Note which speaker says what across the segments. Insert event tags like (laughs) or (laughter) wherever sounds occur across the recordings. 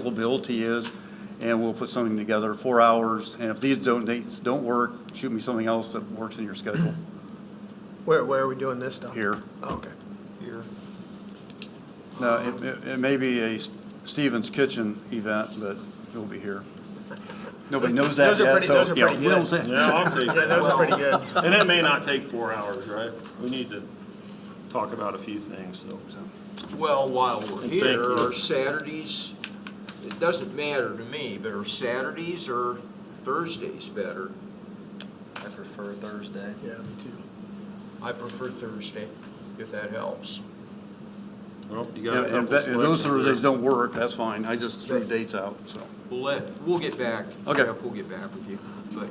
Speaker 1: availability is, and we'll put something together, four hours. And if these don't, dates don't work, shoot me something else that works in your schedule
Speaker 2: Where, where are we doing this stuff?
Speaker 1: here.
Speaker 2: Okay.
Speaker 1: No, it- it, it may be a Stevens Kitchen event, but it'll be here. Nobody knows that
Speaker 2: Those are
Speaker 1: yet,
Speaker 2: pretty-
Speaker 1: so,
Speaker 2: those are
Speaker 1: yeah,
Speaker 2: pretty
Speaker 1: you don't
Speaker 2: good.
Speaker 1: say.
Speaker 3: Yeah, I'll take
Speaker 2: Yeah, those
Speaker 3: that.
Speaker 2: are pretty good.
Speaker 3: And it may not take four hours, right? We need to talk about a few things, so.
Speaker 4: Well, while we're
Speaker 3: Thank
Speaker 4: here,
Speaker 3: you.
Speaker 4: are Saturdays, it doesn't matter to me, but are Saturdays or Thursdays better?
Speaker 5: I prefer Thursday.
Speaker 2: Yeah, me too.
Speaker 4: I prefer Thursday, if that helps.
Speaker 3: Well, you got a
Speaker 1: Yeah, If
Speaker 3: couple
Speaker 1: that- if those
Speaker 3: selections
Speaker 1: Thursdays
Speaker 3: there.
Speaker 1: don't work, that's fine. I just threw dates out, so.
Speaker 4: We'll let, we'll get back.
Speaker 1: Okay.
Speaker 4: Jeff, We'll get back with you, but,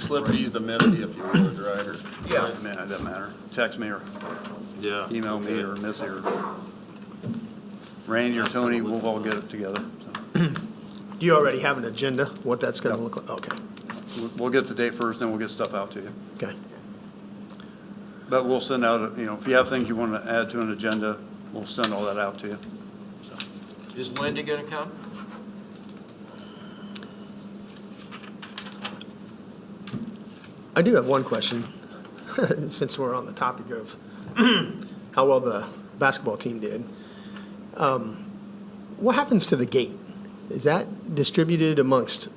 Speaker 3: Slip these to Mitty if you would, right? or-
Speaker 4: yeah,
Speaker 1: Man, it doesn't matter. Text me or
Speaker 3: Yeah.
Speaker 1: email me
Speaker 3: okay.
Speaker 1: or Missy or Randy or Tony, we'll all get it together. So
Speaker 2: Do you already have an agenda, what that's gonna look like? Okay,
Speaker 1: we'll- We'll get the date first, then we'll get stuff out to you.
Speaker 2: okay.
Speaker 1: But we'll send out, you know, if you have things you want to add to an agenda, we'll send all that out to you.
Speaker 4: is Linda gonna come?
Speaker 2: I do have one question, (laughs) since we're on the topic of (clears throat) how well the basketball team did. Um, What happens to the gate? Is that distributed amongst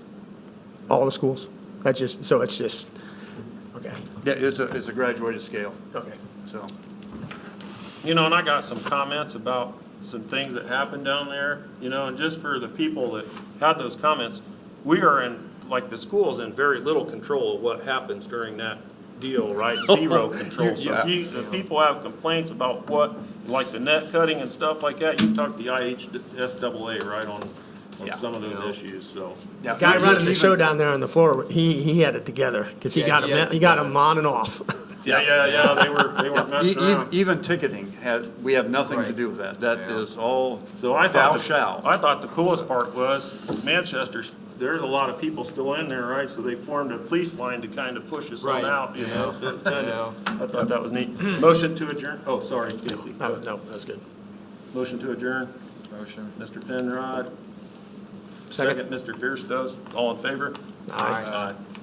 Speaker 2: all the schools? That's just, so it's just, okay,
Speaker 1: Yeah, it's a, it's a graduated scale,
Speaker 2: okay.
Speaker 1: so.
Speaker 3: You know, and I got some comments about some things that happened down there, you know, and just for the people that had those comments, we are in, like, the school's in very little control of what happens during that
Speaker 1: (laughs)
Speaker 3: deal, right? Zero control. So
Speaker 1: Yeah.
Speaker 3: if you, if people have complaints about what, like the net cutting and stuff like that, you talk to the IHSAA, right, on, on
Speaker 1: Yeah.
Speaker 3: some of those issues, so.
Speaker 1: yeah.
Speaker 2: Guy running the show down there on the floor, he, he had it together, because he
Speaker 4: Yeah,
Speaker 2: got
Speaker 4: he
Speaker 2: him,
Speaker 4: had it
Speaker 2: he got him on and off. (laughs)
Speaker 3: Yeah, yeah, yeah, they were, they were
Speaker 1: E-
Speaker 3: messing
Speaker 1: e-
Speaker 3: around.
Speaker 1: Even ticketing, had, we have nothing to
Speaker 4: Right.
Speaker 1: do with that. That
Speaker 4: Yeah.
Speaker 1: is all
Speaker 3: So I
Speaker 1: thou
Speaker 3: thought,
Speaker 1: shalt.
Speaker 3: the- I thought the coolest part was Manchester, there's a lot of people still in there, right? So they formed a police line to kind of push us on
Speaker 4: Right.
Speaker 3: out, you know, so it's kind
Speaker 4: Yeah. Uh-huh.
Speaker 3: of, I thought that was neat. Motion to adjourn, oh, sorry, Casey.
Speaker 2: I don't know, that's good.
Speaker 3: Motion to adjourn,
Speaker 5: Motion.
Speaker 3: Mr. Penrod.
Speaker 2: Second.
Speaker 3: Second, Mr. Fierce does, all in favor?
Speaker 2: Aye.
Speaker 3: Aye.